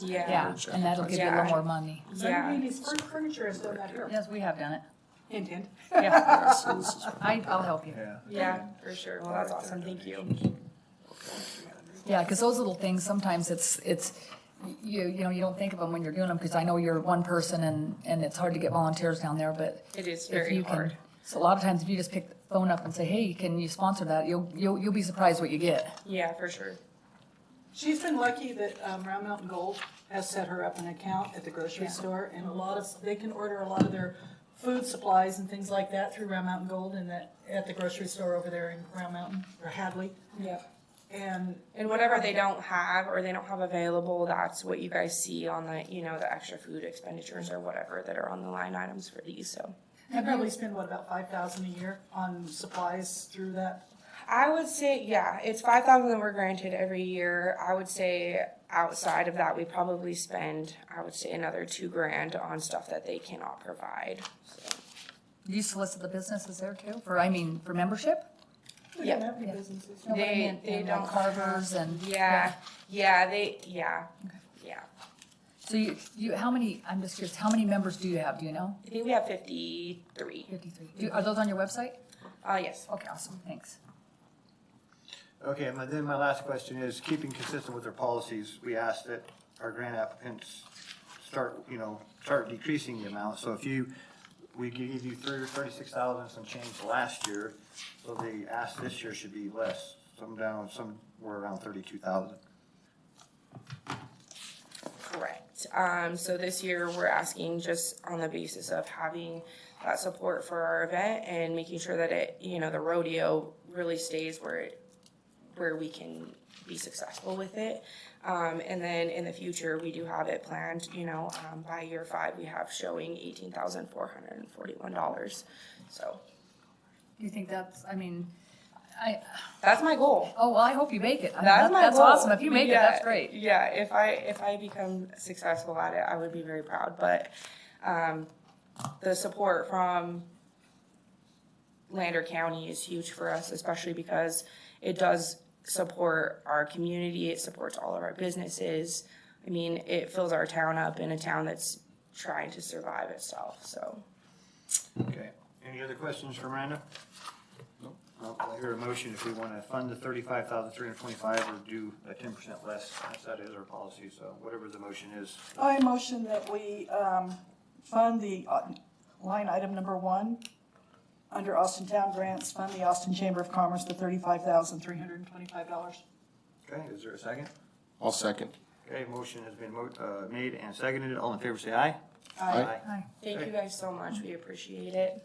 Yeah, Yeah, and that'll give you a little more money. yeah. Ladies, first furniture is still not here. Yes, we have done it. Hint, hint. Yeah, Yeah, so this is- I, I'll help you. Yeah. yeah, for sure. Well, that's awesome. Thank you. Yeah, because those little things, sometimes it's, it's, you, you know, you don't think of them when you're doing them, because I know you're one person and, and it's hard to get volunteers down there, but It is if very you can. hard. So a lot of times if you just pick the phone up and say, hey, can you sponsor that? You'll, you'll, you'll be surprised what you get. Yeah, for sure. She's been lucky that um, Round Mountain Gold has set her up an account at the grocery store, and a lot of, they can order a lot of their food supplies and things like that through Round Mountain Gold and that, at the grocery store over there in Round Mountain, or Hadley. Yeah. And And whatever they don't have or they don't have available, that's what you guys see on the, you know, the extra food expenditures or whatever that are on the line items for these. So I probably spend, what, about five thousand a year on supplies through that? I would say, yeah, it's five thousand that we're granted every year. I would say outside of that, we probably spend, I would say, another two grand on stuff that they cannot provide. So, Do you solicit the businesses there too, for, I mean, for membership? We Yeah. don't have any businesses. No, but I They- meant they in, like, don't- Carvers and. yeah, yeah, they, yeah, yeah. So you, you, how many, I'm just curious, how many members do you have, do you know? I think we have fifty-three. Fifty-three. Do, are those on your website? Uh, yes. Okay, awesome, thanks. Okay, and then my last question is, keeping consistent with our policies, we ask that our grant applicants start, you know, start decreasing the amount. So if you, we gave you thirty-six thousand some change last year, so the ask this year should be less, some down, some were around thirty-two thousand. Correct. Um, so this year, we're asking just on the basis of having that support for our event and making sure that it, you know, the rodeo really stays where it, where we can be successful with it. Um, and then in the future, we do have it planned, you know, um, by year five, we have showing eighteen thousand four hundred and forty-one dollars. So Do you think that's, I mean, I, that's my goal. oh, well, I hope you make it. I mean, That's that- my That's goal. awesome, if you make it, that's Yeah, great. Yeah, if I if I become successful at it, I would be very proud. But um, the support from Lander County is huge for us, especially because it does support our community. It supports all of our businesses. I mean, it fills our town up in a town that's trying to survive itself. So Okay, any other questions for Miranda? Nope. I'll hear a motion if we want to fund the thirty-five thousand three hundred twenty-five or do a ten percent less, That's- that is our policy, so whatever the motion is. I motion that we um, fund the uh, line item number one, under Austin Town Grants, fund the Austin Chamber of Commerce, the thirty-five thousand three hundred and twenty-five dollars. Okay, is there a second? I'll second. Okay, motion has been mo- uh, made and seconded. All in favor, say aye. Aye. Hi. thank you guys so much. We appreciate it.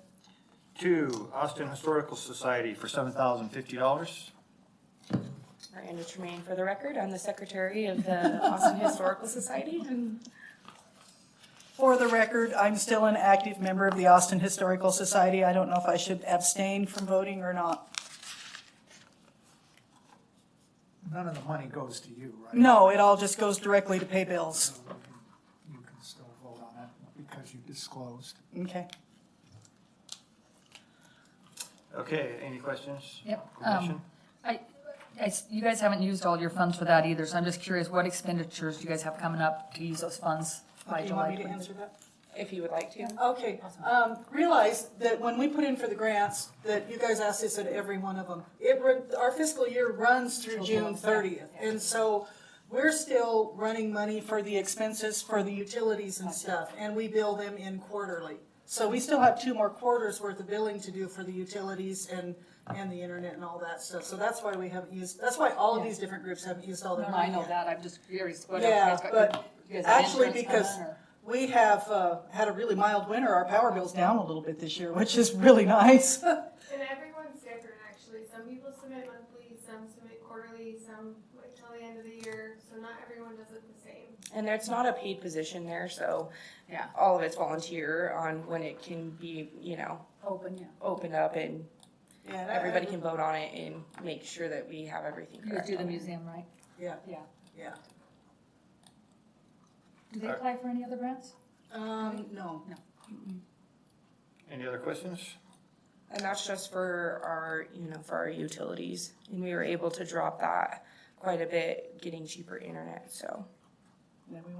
Two, Austin Historical Society for seven thousand fifty dollars. Miranda Tremaine, for the record, I'm the secretary of the Austin Historical Society, and For the record, I'm still an active member of the Austin Historical Society. I don't know if I should abstain from voting or not. None of the money goes to you, right? No, it all just goes directly to pay bills. You can still vote on it because you disclosed. Okay. Okay, any questions? Yep, Commission? I, I s- you guys haven't used all your funds for that either, so I'm just curious, what expenditures do you guys have coming up to use those funds by Do you want July? me to 20? answer that? if you would like to. Okay, um, realize that when we put in for the grants, that you guys ask this at every one of them. It, run- our fiscal year runs through June thirtieth, and so we're still running money for the expenses for the utilities and stuff, and we bill them in quarterly. So we still have two more quarters worth of billing to do for the utilities and, and the internet and all that stuff. So that's why we haven't used, that's why all of these different groups haven't used all No, their no, money I know yet. that, I'm just curious, what Yeah, else? you guys got- but you guys have actually, insurance coming because or- we have uh, had a really mild winter, our power bill's down a little bit this year, which is really nice. And everyone's different, actually. Some people submit monthly, some submit quarterly, some wait till the end of the year. So not everyone does it the same. And it's not a paid position there, so Yeah. all of it's volunteer on when it can be, you know, Open, yeah. opened up and Yeah, everybody can vote on it and make sure that we have everything You guys correct. do the on it. museum, right? Yeah. Yeah. Yeah. Do they apply for any other grants? Um, no. Any other questions? And that's just for our, you know, for our utilities. And we were able to drop that quite a bit, getting cheaper internet, so. Yeah, we